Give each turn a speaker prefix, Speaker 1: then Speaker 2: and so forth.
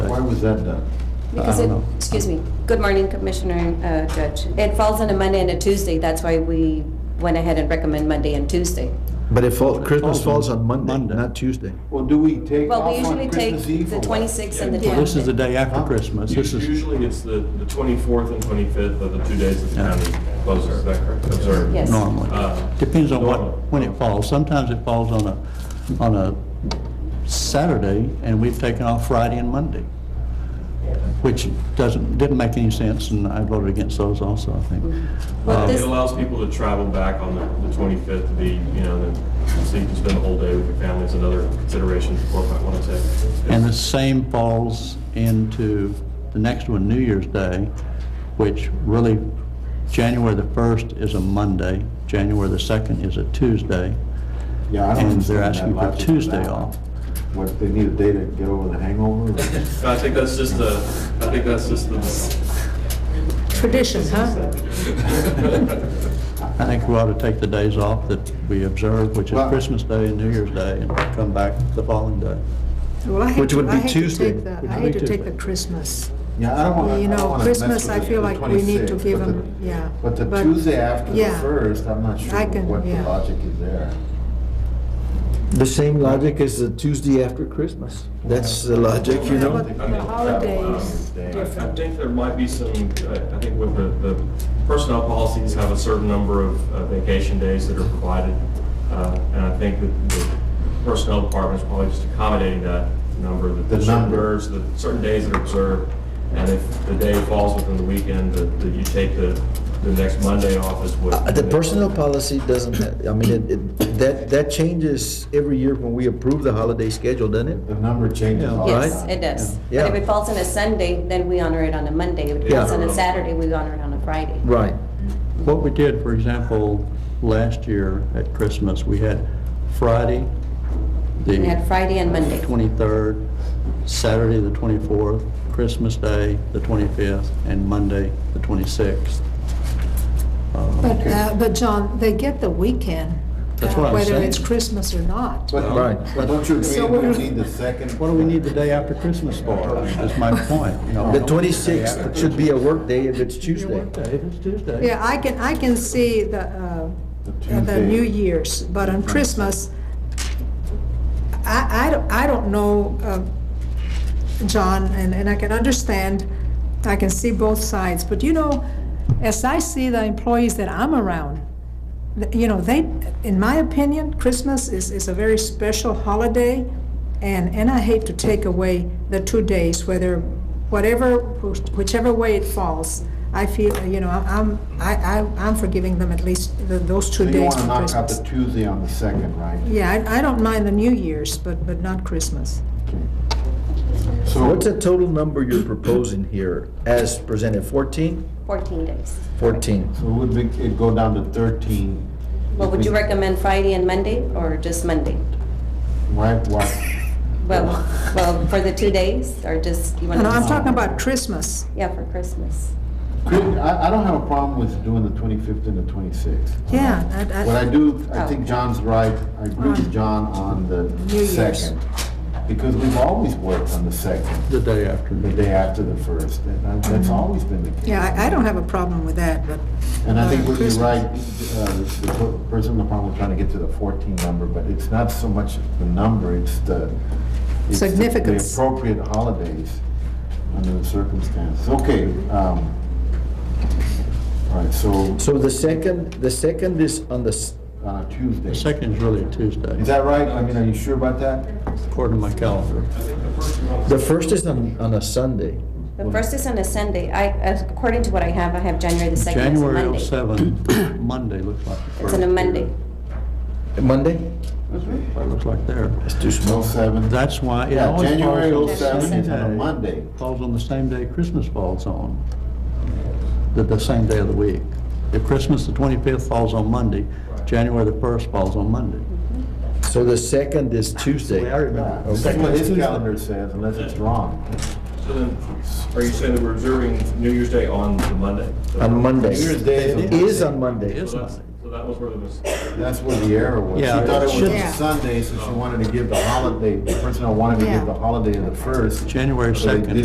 Speaker 1: is that done?
Speaker 2: Because
Speaker 3: I
Speaker 2: it,
Speaker 3: don't know.
Speaker 2: excuse me, good morning Commissioner, uh, Judge. It falls on a Monday and a Tuesday, that's why we went ahead and recommend Monday and Tuesday.
Speaker 3: But if fall- Christmas
Speaker 4: on
Speaker 3: falls on
Speaker 4: Monday.
Speaker 3: Monday, not Tuesday.
Speaker 1: Well, do we take
Speaker 2: Well,
Speaker 1: off
Speaker 2: we usually
Speaker 1: on
Speaker 2: take
Speaker 1: Christmas Eve?
Speaker 2: the
Speaker 1: or what?
Speaker 2: 26th and the
Speaker 5: Yeah.
Speaker 2: 25th.
Speaker 4: This is the day after Christmas. This is,
Speaker 6: Usually it's the, the 24th and 25th are the two days that the county closes, is that correct? Observe.
Speaker 2: Yes.
Speaker 4: Normally.
Speaker 6: Uh,
Speaker 4: depends on what,
Speaker 6: Normal.
Speaker 4: when it falls. Sometimes it falls on a, on a Saturday, and we've taken off Friday and Monday, which doesn't, didn't make any sense, and I voted against those also, I think.
Speaker 3: Mm-hmm. Uh,
Speaker 2: Well,
Speaker 6: It
Speaker 2: this-
Speaker 6: allows people to travel back on the- the 25th to be, you know, then- so you can spend the whole day with your family is another consideration the court might want to take.
Speaker 4: And the same falls into the next one, New Year's Day, which really, January the 1st is a Monday, January the 2nd is a Tuesday,
Speaker 1: Yeah, I don't
Speaker 4: and
Speaker 1: understand
Speaker 4: they're
Speaker 1: that
Speaker 4: asking for
Speaker 1: logic of
Speaker 4: Tuesday
Speaker 1: that.
Speaker 4: off.
Speaker 1: What, they need a day to get over the hangover?
Speaker 6: I think that's just the, I think that's just the,
Speaker 5: Tradition, huh?
Speaker 4: I think we ought to take the days off that we observe, which is
Speaker 1: Well-
Speaker 4: Christmas Day and New Year's Day, and come back the following day.
Speaker 5: Well, I hate
Speaker 3: Which
Speaker 5: to-
Speaker 3: would be
Speaker 5: I hate to
Speaker 3: Tuesday.
Speaker 5: take that.
Speaker 4: Which
Speaker 5: I
Speaker 4: would be
Speaker 5: hate to take
Speaker 4: Tuesday.
Speaker 5: the Christmas.
Speaker 1: Yeah, I don't want to.
Speaker 5: You know, Christmas, I feel like we need to give them, yeah.
Speaker 1: But the Tuesday after the
Speaker 5: yeah.
Speaker 1: first, I'm not sure
Speaker 5: I can-
Speaker 1: what the
Speaker 5: yeah.
Speaker 1: logic is there.
Speaker 3: The same logic as the Tuesday after Christmas. That's the logic, you
Speaker 5: Yeah,
Speaker 3: know?
Speaker 5: but
Speaker 6: I mean,
Speaker 5: the holidays,
Speaker 1: Day
Speaker 6: I
Speaker 1: after.
Speaker 6: I think there might be some, uh, I I think with the, the personnel policies have a certain number of uh, vacation days that are provided. Uh, And I think that the personnel department is probably just accommodating that number, that
Speaker 1: The
Speaker 6: the certain
Speaker 1: number.
Speaker 6: days, the certain days that are observed. And if the day falls within the weekend, that that you take the, the next Monday off is what.
Speaker 3: Uh, The personnel policy doesn't, I mean, it- it- that, that changes every year when we approve the holiday schedule, doesn't it?
Speaker 1: The number changes
Speaker 3: Yeah.
Speaker 1: all the
Speaker 2: Yes,
Speaker 1: time.
Speaker 2: it does. But
Speaker 3: Yeah.
Speaker 2: if it falls on a Sunday, then we honor it on a Monday. If it
Speaker 3: Yeah.
Speaker 2: falls on a Saturday, we honor it on a Friday.
Speaker 3: Right.
Speaker 4: What we did, for example, last year at Christmas, we had Friday, the...
Speaker 2: We had Friday and Monday.
Speaker 4: 23rd, Saturday, the 24th, Christmas Day, the 25th, and Monday, the 26th.
Speaker 5: but, uh, but John, they get the weekend.
Speaker 4: That's
Speaker 5: uh,
Speaker 4: what I'm
Speaker 5: Whether
Speaker 4: saying.
Speaker 5: it's Christmas or not.
Speaker 1: But
Speaker 3: Right.
Speaker 1: but don't you
Speaker 5: So
Speaker 1: agree
Speaker 5: what-
Speaker 1: we need the second?
Speaker 4: What do we need the day after Christmas for? That's my point, you know.
Speaker 3: The 26th should be a workday if it's
Speaker 4: Your
Speaker 3: Tuesday.
Speaker 4: workday, if it's Tuesday.
Speaker 5: Yeah, I can, I can see the, uh, the
Speaker 1: Tuesday.
Speaker 5: New Year's, but on Christmas, I, I don't, I don't know, uh, John, and, and I can understand, I can see both sides, but you know, as I see the employees that I'm around, th- you know, they, in my opinion, Christmas is, is a very special holiday, and, and I hate to take away the two days, whether, whatever, which- whichever way it falls. I feel, you know, I'm, I, I- I'm forgiving them at least the- those
Speaker 1: So
Speaker 5: two
Speaker 1: you
Speaker 5: days
Speaker 1: want to
Speaker 5: for
Speaker 1: knock out
Speaker 5: Christmas.
Speaker 1: the Tuesday on the second, right?
Speaker 5: Yeah, I, I don't mind the New Year's, but, but not Christmas.
Speaker 1: So
Speaker 3: What's the total number you're proposing here as presented? 14?
Speaker 2: 14 days.
Speaker 3: 14.
Speaker 1: so would it it'd go down to thirteen?
Speaker 2: Well, would you recommend Friday and Monday or just Monday?
Speaker 1: Why, why?
Speaker 2: Well, well, for the two days or just, you want
Speaker 5: No,
Speaker 2: to?
Speaker 5: I'm talking about Christmas.
Speaker 2: Yeah, for Christmas.
Speaker 1: Could- I, I don't have a problem with doing the twenty-fifth and the twenty-sixth. Um,
Speaker 5: Yeah,
Speaker 1: What I
Speaker 5: I, I,
Speaker 1: do,
Speaker 2: Oh.
Speaker 1: I think John's right, I agree with John on
Speaker 5: New
Speaker 1: the
Speaker 5: Year's.
Speaker 1: second. Because we've always worked on the second,
Speaker 4: The day after.
Speaker 1: the day after the first, and that- that's always been the case.
Speaker 5: Mm-hmm. yeah, I, I don't have a problem with that, but,
Speaker 1: And I think what you're
Speaker 5: Christmas.
Speaker 1: right, uh, the per- person in the problem was trying to get to the 14 number, but it's not so much the number, it's the... it's the-
Speaker 5: Significance.
Speaker 1: The appropriate holidays under the circumstances. Okay, um, all right, so
Speaker 3: So the second, the second is on the, s-
Speaker 1: on a Tuesday.
Speaker 4: The second is really a Tuesday,
Speaker 1: Is that right? I mean, are you sure about that?
Speaker 4: according to my calendar.
Speaker 3: the first is on, on a Sunday.
Speaker 2: The first is on a Sunday. I, as- according to what I have, I have January the 2nd is a
Speaker 4: January
Speaker 2: Monday.
Speaker 4: 07, Monday looks like the
Speaker 2: It's
Speaker 4: first.
Speaker 2: on a Monday.
Speaker 3: Monday?
Speaker 4: It looks like there.
Speaker 3: It's too small.
Speaker 1: 07?
Speaker 4: That's why it
Speaker 1: Yeah,
Speaker 4: always falls on
Speaker 1: January
Speaker 4: the
Speaker 1: 07
Speaker 4: same
Speaker 1: is on a
Speaker 4: day-
Speaker 1: Monday.
Speaker 4: Falls on the same day Christmas falls on, the, the same day of the week. If Christmas, the 25th, falls on Monday, January the 1st falls on Monday.
Speaker 3: So the second is Tuesday.
Speaker 1: Yeah, That's what his calendar says, unless it's wrong.
Speaker 6: So then, are you saying that we're observing New Year's Day on the Monday?
Speaker 3: On Monday.
Speaker 1: New Year's Day is on
Speaker 3: It Is on
Speaker 4: It
Speaker 3: Monday.
Speaker 4: is
Speaker 6: So that's-
Speaker 4: Monday.
Speaker 6: so that was where the mis-
Speaker 1: That's where the error was. She
Speaker 4: Yeah, it
Speaker 1: thought it was
Speaker 4: should-
Speaker 1: a Sunday, so she wanted to give the holiday, the person who wanted to
Speaker 5: Yeah.
Speaker 1: give the holiday of the first.
Speaker 4: January
Speaker 1: so they
Speaker 4: 2nd.